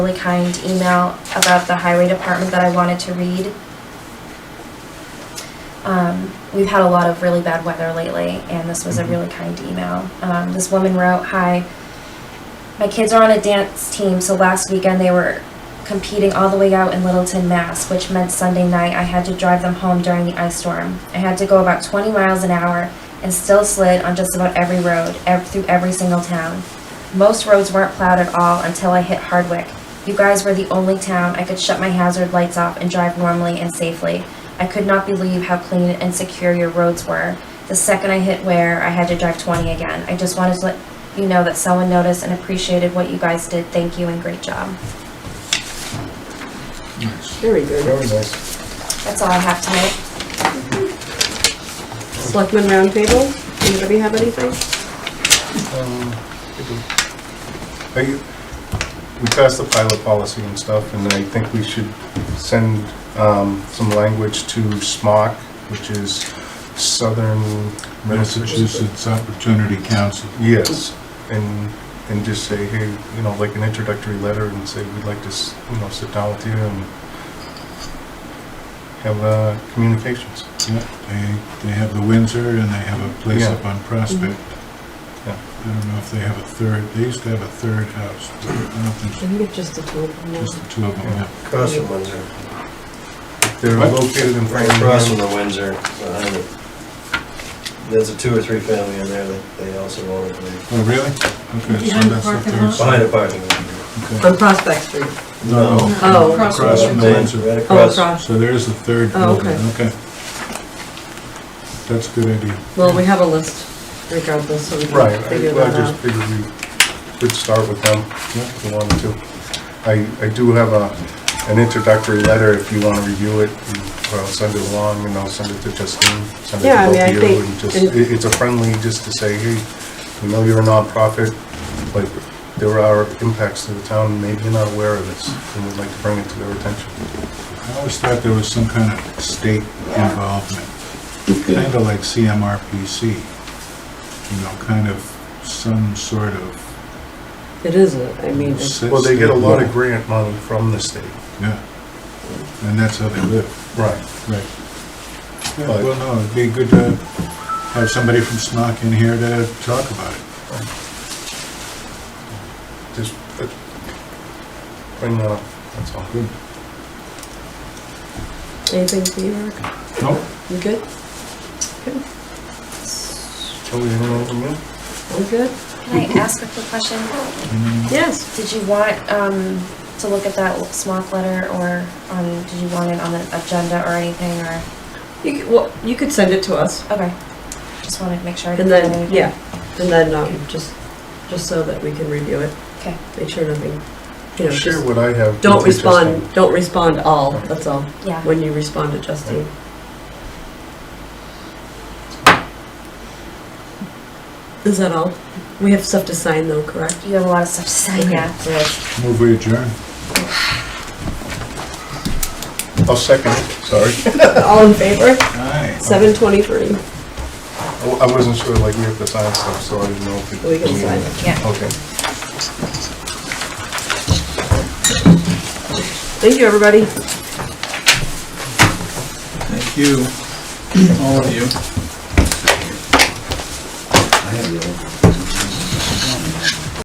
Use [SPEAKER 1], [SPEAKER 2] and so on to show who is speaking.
[SPEAKER 1] really kind email about the highway department that I wanted to read. Um, we've had a lot of really bad weather lately, and this was a really kind email. Um, this woman wrote, "Hi, my kids are on a dance team, so last weekend they were competing all the way out in Littleton, Mass, which meant Sunday night I had to drive them home during the ice storm. I had to go about 20 miles an hour and still slid on just about every road, ev- through every single town. Most roads weren't plowed at all until I hit Hardwick. You guys were the only town I could shut my hazard lights off and drive normally and safely. I could not believe how clean and secure your roads were. The second I hit Ware, I had to drive 20 again. I just wanted to let you know that someone noticed and appreciated what you guys did. Thank you and great job.
[SPEAKER 2] Very good.
[SPEAKER 3] Very nice.
[SPEAKER 1] That's all I have tonight.
[SPEAKER 2] Selectmen roundtable, anybody have anything?
[SPEAKER 3] Um, I, we passed the pilot policy and stuff, and I think we should send, um, some language to SMOC, which is Southern Massachusetts.
[SPEAKER 4] Massachusetts Opportunity Council.
[SPEAKER 3] Yes, and, and just say, hey, you know, like an introductory letter and say, we'd like to, s- you know, sit down with you and have, uh, communications.
[SPEAKER 4] Yeah, They, they have the Windsor and they have a place
[SPEAKER 3] Yeah.
[SPEAKER 4] up on Prospect.
[SPEAKER 3] Yeah.
[SPEAKER 4] I don't know if they have a third, they used to have a third house, but I don't think,
[SPEAKER 2] think it's just the two of
[SPEAKER 4] so. just the two of them. yeah.
[SPEAKER 5] Across from Windsor.
[SPEAKER 3] They're
[SPEAKER 4] What?
[SPEAKER 3] located in
[SPEAKER 5] Right across from
[SPEAKER 3] Framingham.
[SPEAKER 5] the Windsor, behind it. There's a two or three family in there that they also own it, and
[SPEAKER 4] Oh, really? Okay, so
[SPEAKER 6] Behind the
[SPEAKER 4] that's the
[SPEAKER 6] parking
[SPEAKER 4] third
[SPEAKER 6] lot?
[SPEAKER 5] they- behind
[SPEAKER 4] side.
[SPEAKER 5] a parking lot.
[SPEAKER 4] Okay.
[SPEAKER 2] On Prospect Street.
[SPEAKER 4] No,
[SPEAKER 2] Oh.
[SPEAKER 6] Across the
[SPEAKER 4] Across from the
[SPEAKER 6] road.
[SPEAKER 4] Windsor.
[SPEAKER 5] Right
[SPEAKER 2] Oh,
[SPEAKER 5] across.
[SPEAKER 2] across,
[SPEAKER 4] So there is a third
[SPEAKER 2] Oh,
[SPEAKER 4] building, okay. That's a good idea.
[SPEAKER 2] well, we have a list regardless, so we
[SPEAKER 3] Right,
[SPEAKER 2] can
[SPEAKER 3] I
[SPEAKER 2] figure
[SPEAKER 3] I
[SPEAKER 2] that
[SPEAKER 3] just
[SPEAKER 2] out.
[SPEAKER 3] figured we could start with them if you wanted to. I, I do have a, an introductory letter if you want to review it, and I'll send it along, and I'll send it to Justine, send it
[SPEAKER 2] Yeah,
[SPEAKER 3] to
[SPEAKER 2] I
[SPEAKER 3] both
[SPEAKER 2] mean, I
[SPEAKER 3] of you,
[SPEAKER 2] think-
[SPEAKER 3] and just,
[SPEAKER 2] and-
[SPEAKER 3] it- it's a friendly, just to say, hey, we know you're a nonprofit, but there are impacts to the town, maybe you're not aware of this, and we'd like to bring it to their attention.
[SPEAKER 4] I always thought there was some kind of state involvement, kind of like CMRPC, you know, kind of some sort of.
[SPEAKER 2] It is, a- I mean, it's-
[SPEAKER 4] set
[SPEAKER 3] Well, they get a
[SPEAKER 4] state
[SPEAKER 3] lot of
[SPEAKER 4] law.
[SPEAKER 3] grant money from the state.
[SPEAKER 4] Yeah, and that's how they live,
[SPEAKER 3] Right.
[SPEAKER 4] right. Yeah,
[SPEAKER 3] But-
[SPEAKER 4] Well, no, it'd be good to have somebody from SMOC in here to talk about it.
[SPEAKER 3] Just uh, bring that up, that's all.
[SPEAKER 4] Good.
[SPEAKER 2] anything for you, Eric?
[SPEAKER 4] Nope,
[SPEAKER 2] You good?
[SPEAKER 3] Tell me anything from you?
[SPEAKER 2] You good?
[SPEAKER 1] Can I ask a quick question?
[SPEAKER 4] Mm,
[SPEAKER 2] Yes.
[SPEAKER 1] Did you want, um, to look at that smock letter or, um, did you want it on the agenda or anything or?
[SPEAKER 2] You, c- well, you could send it to us
[SPEAKER 1] Okay. Just wanted to make sure. I
[SPEAKER 2] and
[SPEAKER 1] didn't
[SPEAKER 2] then,
[SPEAKER 1] do
[SPEAKER 2] yeah, and then, um, just, just so that we can review it,
[SPEAKER 1] anything.
[SPEAKER 2] make sure nothing, you know,
[SPEAKER 3] Share
[SPEAKER 2] just,
[SPEAKER 3] what I have.
[SPEAKER 2] don't
[SPEAKER 3] with you, Justin.
[SPEAKER 2] respond, don't respond all, that's all,
[SPEAKER 1] Okay, yeah.
[SPEAKER 2] when you respond to Justine. Is that all? We have stuff to sign though, correct?
[SPEAKER 1] You have a lot of stuff to say, Uh, yeah.
[SPEAKER 2] So that's-
[SPEAKER 4] Move we adjourn.
[SPEAKER 3] I'll second, sorry.
[SPEAKER 2] All in favor?
[SPEAKER 4] Aye.
[SPEAKER 2] Seven twenty-three.
[SPEAKER 3] I I wasn't sure, like, we have to sign stuff, so I didn't know if. it-
[SPEAKER 2] We can sign it.
[SPEAKER 1] Yeah.
[SPEAKER 3] Okay.
[SPEAKER 2] Thank you, everybody.
[SPEAKER 7] Thank you, all of you.